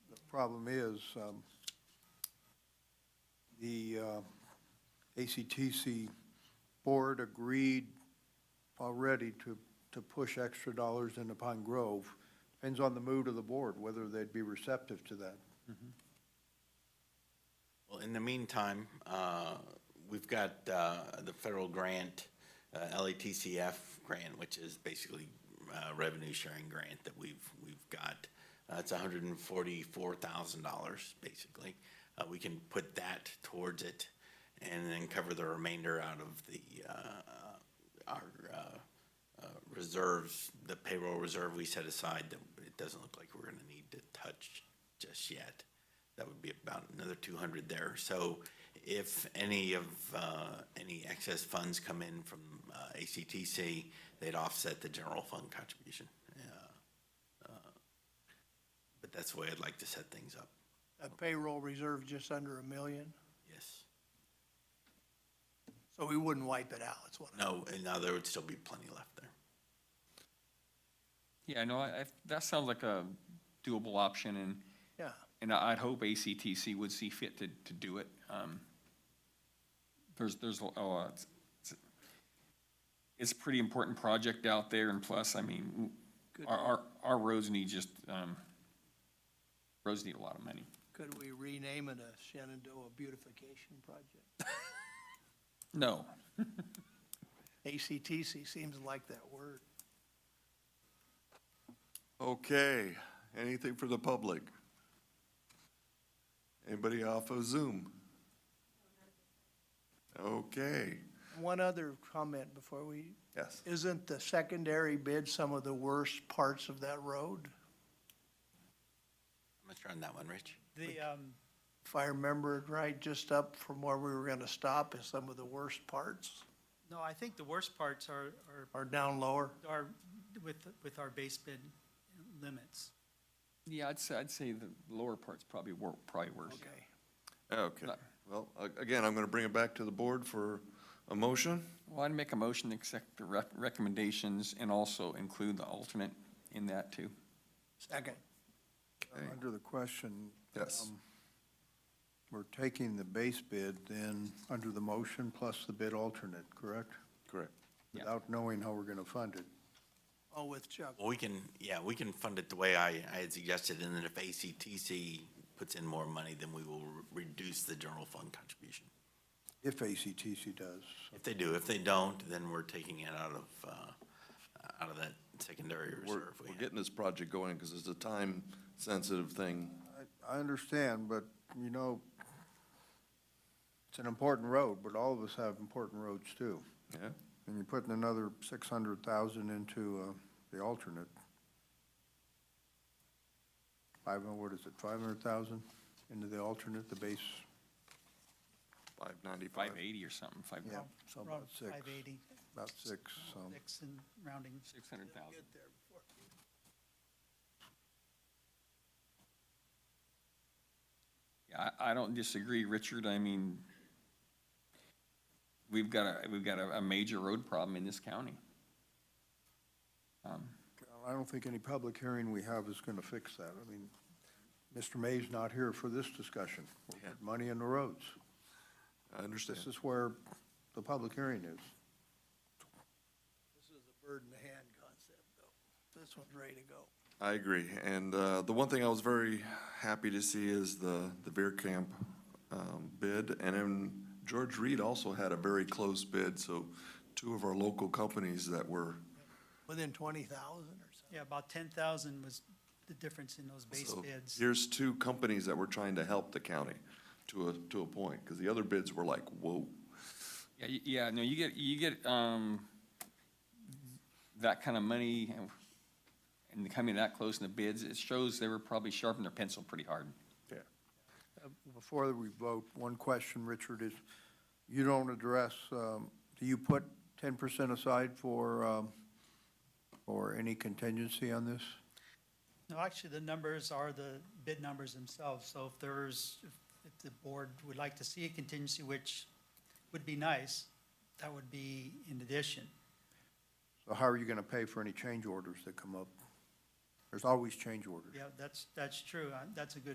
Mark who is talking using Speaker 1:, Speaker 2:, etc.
Speaker 1: problem is, um, the uh, ACTC board agreed already to, to push extra dollars into Pine Grove. Depends on the mood of the board, whether they'd be receptive to that.
Speaker 2: Well, in the meantime, uh, we've got uh, the federal grant, uh, LATCF grant, which is basically uh, revenue sharing grant that we've, we've got. Uh, It's $144,000, basically. Uh, We can put that towards it and then cover the remainder out of the, uh, our uh, uh, reserves, the payroll reserve we set aside that it doesn't look like we're going to need to touch just yet. That would be about another two hundred there. So if any of, uh, any excess funds come in from, uh, ACTC, they'd offset the general fund contribution. Uh, uh, But that's the way I'd like to set things up.
Speaker 3: A payroll reserve just under a million,
Speaker 2: Yes.
Speaker 3: so we wouldn't wipe it out, that's what. I-
Speaker 2: No, and now there would still be plenty left there.
Speaker 4: Yeah, no, I, I, that sounds like a doable option, and,
Speaker 3: Yeah,
Speaker 4: and I- I'd hope ACTC would see fit to, to do it. Um, There's, there's, a- oh, uh, it's, it's- it's a pretty important project out there, and plus, I mean, our, our, our roads need just, um, roads need a lot of money.
Speaker 3: could we rename it a Shenandoah Beautification Project?
Speaker 4: No,
Speaker 3: ACTC seems like that word.
Speaker 5: Okay, anything for the public? Anybody off of Zoom? Okay,
Speaker 3: One other comment before we,
Speaker 5: yes.
Speaker 3: isn't the secondary bid some of the worst parts of that road?
Speaker 2: I'm not sure on that one, Rich.
Speaker 6: The, um,
Speaker 3: If I remember it right, just up from where we were gonna stop is some of the worst parts,
Speaker 6: no, I think the worst parts are, are,
Speaker 3: or down lower.
Speaker 6: are with, with our base bid limits.
Speaker 4: yeah, I'd say, I'd say the lower part's probably wor, probably worse.
Speaker 3: Okay.
Speaker 5: Okay, well, a- again, I'm going to bring it back to the board for a motion.
Speaker 4: Well, I'd make a motion to accept the rec- recommendations and also include the alternate in that too.
Speaker 3: Second,
Speaker 5: Okay.
Speaker 1: Under the question.
Speaker 5: Yes.
Speaker 1: um, We're taking the base bid then, under the motion plus the bid alternate, correct?
Speaker 5: Correct.
Speaker 4: Yeah.
Speaker 1: Without knowing how we're going to fund it.
Speaker 3: oh, with Chuck.
Speaker 2: Well, we can, yeah, we can fund it the way I, I had suggested, and then if ACTC puts in more money, then we will re- reduce the general fund contribution.
Speaker 1: If ACTC does.
Speaker 2: If they do, if they don't, then we're taking it out of, uh, out of that secondary
Speaker 5: We're,
Speaker 2: reserve we
Speaker 5: we're
Speaker 2: had.
Speaker 5: getting this project going because it's a time-sensitive thing.
Speaker 1: I- I understand, but, you know, it's an important road, but all of us have important roads too.
Speaker 5: Yeah,
Speaker 1: And you're putting another six hundred thousand into, uh, the alternate. Five, hun- what is it, five hundred thousand into the alternate, the base,
Speaker 5: five ninety-five.
Speaker 4: Five eighty or something, five,
Speaker 1: yeah, so about
Speaker 6: Around
Speaker 1: six,
Speaker 6: 580,
Speaker 1: about six, so.
Speaker 6: six and rounding.
Speaker 4: six hundred thousand. Yeah, I, I don't disagree, Richard. I mean, we've got a, we've got a, a major road problem in this county. Um,
Speaker 1: I don't think any public hearing we have is gonna fix that. I mean, Mr. May's not here for this discussion. We're putting Money in the roads.
Speaker 5: I understand.
Speaker 1: This is where the public hearing is.
Speaker 3: This is a bird in the hand concept, though. This one's ready to go.
Speaker 5: I agree, and uh, the one thing I was very happy to see is the, the Veer Camp um, bid, and then George Reed also had a very close bid, so two of our local companies that were,
Speaker 3: Within twenty thousand or something.
Speaker 6: Yeah, about 10,000 was the difference in those base
Speaker 5: so
Speaker 6: bids.
Speaker 5: here's two companies that were trying to help the county to a, to a point, because the other bids were like, whoa.
Speaker 4: Yeah, y- yeah, no, you get, you get, um, that kind of money and- and coming that close in the bids, it shows they were probably sharpening their pencil pretty hard.
Speaker 5: Yeah.
Speaker 1: Before we vote, one question, Richard, is you don't address, um, do you put ten percent aside for, um, for any contingency on this?
Speaker 6: No, actually, the numbers are the bid numbers themselves, so if there's, if- if the board would like to see a contingency, which would be nice, that would be in addition.
Speaker 1: So how are you gonna pay for any change orders that come up? There's always change orders.
Speaker 6: Yeah, that's, that's true, Uh, that's a good